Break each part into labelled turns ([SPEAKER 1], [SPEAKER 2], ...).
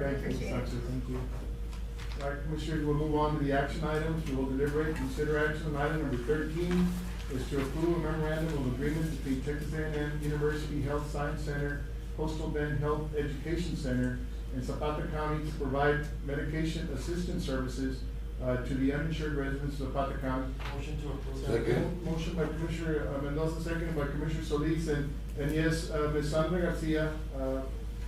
[SPEAKER 1] Thank you,
[SPEAKER 2] Appreciate it.
[SPEAKER 1] Inspector, thank you. All right, Commissioners, we'll move on to the action items. We will deliberate, consider action item number thirteen is to approve a memorandum of agreement between Texas A and M University Health Science Center, Coastal Bend Health Education Center, and Zapata County to provide medication assistance services uh, to the uninsured residents of Zapata County.
[SPEAKER 3] Motion to approve.
[SPEAKER 4] Second.
[SPEAKER 1] Motion by Commissioner uh, Mendoza, second by Commissioner Solis, and, and yes, uh, Ms. Sandra Garcia, uh,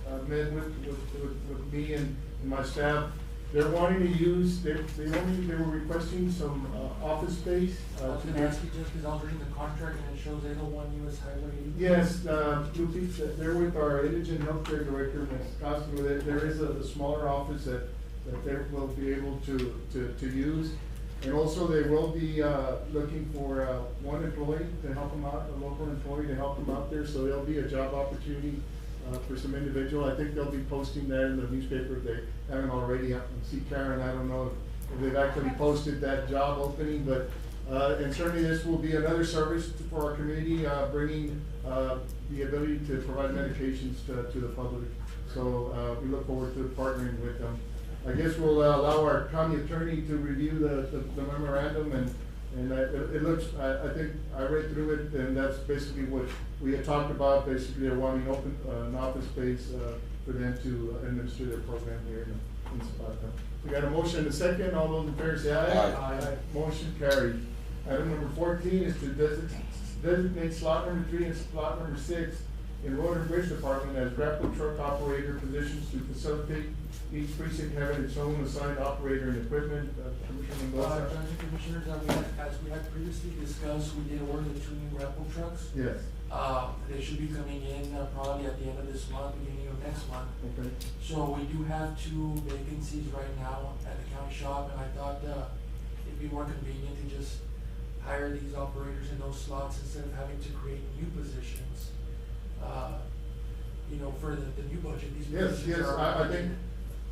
[SPEAKER 1] uh, met with, with, with, with me and, and my staff. They're wanting to use, they, they only, they were requesting some, uh, office space,
[SPEAKER 3] I
[SPEAKER 1] uh,
[SPEAKER 3] was
[SPEAKER 1] to
[SPEAKER 3] gonna
[SPEAKER 1] do-
[SPEAKER 3] ask you just because I was reading the contract and it shows eight oh one US Highway.
[SPEAKER 1] Yes, uh, Lupe, they're with our indigent healthcare director, Ms. Castro, there, there is a, a smaller office that, that they will be able to, to, to use. And also, they will be, uh, looking for, uh, one employee to help them out, a local employee to help them out there, so there'll be a job opportunity, uh, for some individual, I think they'll be posting that in the newspaper if they haven't already, I can see Karen, I don't know if they've actually posted that job opening, but, uh, and certainly this will be another service to- for our community, uh, bringing, uh, the ability to provide medications to, to the public. So, uh, we look forward to partnering with them. I guess we'll uh, allow our county attorney to review the, the- the memorandum and, and I, it it looks, I, I think, I read through it and that's basically what we had talked about, basically they're wanting open, uh, an office space, uh, for them to uh, administer their program here in, in Zapata. We got a motion and a second, all those in favor say aye.
[SPEAKER 4] Aye.
[SPEAKER 1] Motion carried. Item number fourteen is to designate, designate slot number three and slot number six in Road and Bridge Department as grapple truck operator positions to facilitate each precinct having its own assigned operator and equipment. Uh, Commissioner
[SPEAKER 3] Uh,
[SPEAKER 1] Mendoza?
[SPEAKER 3] Judge and Commissioners, as we had, as we had previously discussed, we did order the two new grapple trucks.
[SPEAKER 1] Yes,
[SPEAKER 3] Uh, they should be coming in uh, probably at the end of this month, beginning of next month.
[SPEAKER 1] okay.
[SPEAKER 3] So we do have two vacancies right now at the county shop, and I thought, uh, it'd be more convenient to just hire these operators in those slots instead of having to create new positions. Uh, you know, for the, the new budget, these
[SPEAKER 1] Yes,
[SPEAKER 3] positions are.
[SPEAKER 1] yes, I- I think-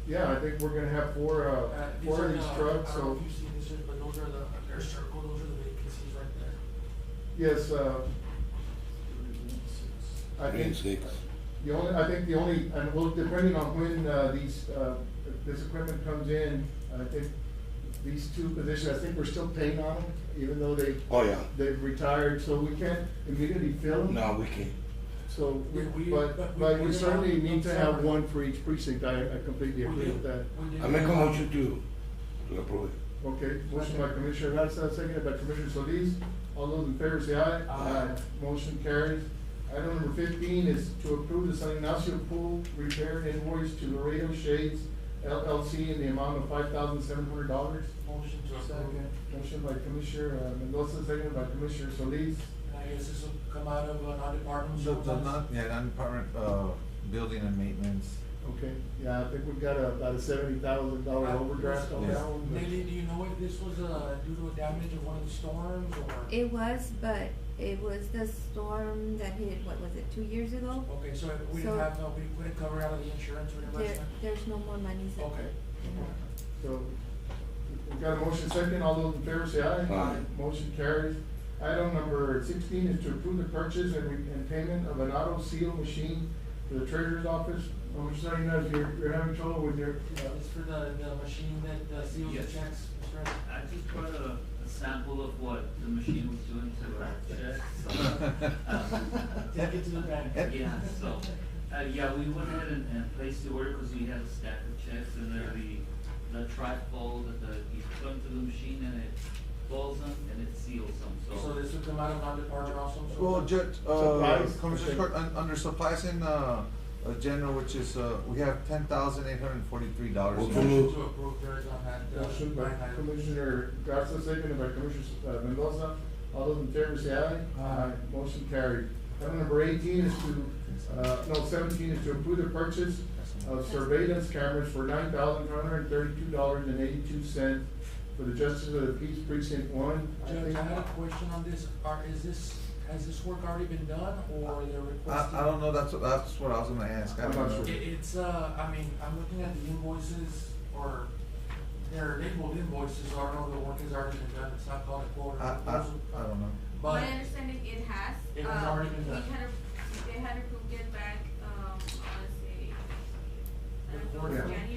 [SPEAKER 1] Yeah, I think we're gonna have four, uh,
[SPEAKER 3] Uh, these
[SPEAKER 1] four
[SPEAKER 3] are
[SPEAKER 1] of these
[SPEAKER 3] the-
[SPEAKER 1] trucks,
[SPEAKER 3] I don't know
[SPEAKER 1] so,
[SPEAKER 3] if you've seen this, but those are the, they're circled, those are the vacancies right there.
[SPEAKER 1] yes, uh, I
[SPEAKER 4] Three and
[SPEAKER 1] think,
[SPEAKER 4] six.
[SPEAKER 1] the only, I think the only, and well, depending on when, uh, these, uh, this equipment comes in, I think these two positions, I think we're still paying on them, even though they,
[SPEAKER 4] Oh, yeah.
[SPEAKER 1] they've retired, so we can't immediately fill them.
[SPEAKER 4] No, we can't.
[SPEAKER 1] So, we-
[SPEAKER 3] We- we- but
[SPEAKER 1] but,
[SPEAKER 3] we-
[SPEAKER 1] but
[SPEAKER 3] we're
[SPEAKER 1] we certainly
[SPEAKER 3] not-
[SPEAKER 1] need to have
[SPEAKER 3] separate.
[SPEAKER 1] one for each precinct, I, I completely
[SPEAKER 3] We
[SPEAKER 1] agree
[SPEAKER 3] did-
[SPEAKER 1] with that.
[SPEAKER 3] we did-
[SPEAKER 4] I make a motion to, to approve it.
[SPEAKER 1] Okay, motion by Commissioner Garza, seconded by Commissioner Solis. All those in favor say aye.
[SPEAKER 3] Aye.
[SPEAKER 1] Motion carries. Item number fifteen is to approve the San Ignacio Pool Repair invoice to Laredo Shades LLC in the amount of five thousand seven hundred dollars.
[SPEAKER 3] Motion to approve.
[SPEAKER 1] Second, motion by Commissioner uh, Mendoza, seconded by Commissioner Solis.
[SPEAKER 3] And I guess this will come out of uh, non-departmental.
[SPEAKER 5] The, the
[SPEAKER 3] funds.
[SPEAKER 5] non, yeah, non-department, uh, building and maintenance,
[SPEAKER 1] Okay, yeah, I think we've got a- about a seventy thousand dollar
[SPEAKER 3] Uh,
[SPEAKER 1] overdraft on
[SPEAKER 5] Yeah.
[SPEAKER 1] that one. but-
[SPEAKER 3] Lily, do you know if this was, uh, due to a damage of one of the storms or?
[SPEAKER 2] It was, but it was the storm that hit, what was it, two years ago?
[SPEAKER 3] Okay, so if we
[SPEAKER 2] So-
[SPEAKER 3] didn't have, no, we wouldn't cover out of the insurance
[SPEAKER 2] There,
[SPEAKER 3] reimbursement?
[SPEAKER 2] there's no more monies. in-
[SPEAKER 3] Okay.
[SPEAKER 2] in that.
[SPEAKER 1] So, we've got a motion second, all those in favor say aye.
[SPEAKER 4] Aye.
[SPEAKER 1] Motion carries. Item number sixteen is to approve the purchase and, re- and payment of an auto seal machine for the treasurer's office. Oh, I'm just letting you know, if you're, you're having trouble with your, uh,
[SPEAKER 3] It's for the, the machine that uh, seals the
[SPEAKER 6] Yes.
[SPEAKER 3] checks, Mr. President?
[SPEAKER 6] I just brought a, a sample of what the machine was doing to our chest. so, um,
[SPEAKER 3] Take it to the bank.
[SPEAKER 6] Yeah, so, uh, yeah, we went ahead and, and placed the order because we had a stack of checks and there the, the trifold that the, you put into the machine and it folds them and it seals them,
[SPEAKER 3] So this would come out of non-department also? so-
[SPEAKER 5] well, ju- uh,
[SPEAKER 1] Supplies,
[SPEAKER 5] Commissioner
[SPEAKER 1] okay.
[SPEAKER 5] Court, un- under supplies and, uh, uh, general, which is, uh, we have ten thousand eight hundred and forty-three dollars.
[SPEAKER 4] Motion
[SPEAKER 3] Motion to approve, there is on that. uh,
[SPEAKER 1] motion by
[SPEAKER 3] line item.
[SPEAKER 1] Commissioner Garza, seconded by Commissioner uh, Mendoza. All those in favor say aye.
[SPEAKER 3] Aye.
[SPEAKER 1] Motion carried. Item number eighteen is to, uh, no, seventeen is to approve the purchase of surveillance cameras for nine thousand one hundred and thirty-two dollars and eighty-two cents for the Justice of the Peace Precinct One. I
[SPEAKER 3] Judge,
[SPEAKER 1] think-
[SPEAKER 3] I had a question on this, are, is this, has this work already been done, or they're
[SPEAKER 5] I,
[SPEAKER 3] requesting?
[SPEAKER 5] I don't know, that's, what- that's what I was gonna ask, I
[SPEAKER 1] I'm
[SPEAKER 5] don't
[SPEAKER 1] not
[SPEAKER 5] know.
[SPEAKER 1] sure.
[SPEAKER 3] It, it's, uh, I mean, I'm looking at the invoices, or, they're labeled invoices, so I don't know if the work has already been done, it's not called a quote or
[SPEAKER 5] I,
[SPEAKER 3] a
[SPEAKER 5] I,
[SPEAKER 3] proposal.
[SPEAKER 5] I don't know.
[SPEAKER 3] But,
[SPEAKER 7] My understanding, it has.
[SPEAKER 3] It has
[SPEAKER 7] um,
[SPEAKER 3] already been done.
[SPEAKER 7] We had, a- they had approved it back, um, I wanna say, I don't
[SPEAKER 1] Yeah.
[SPEAKER 7] January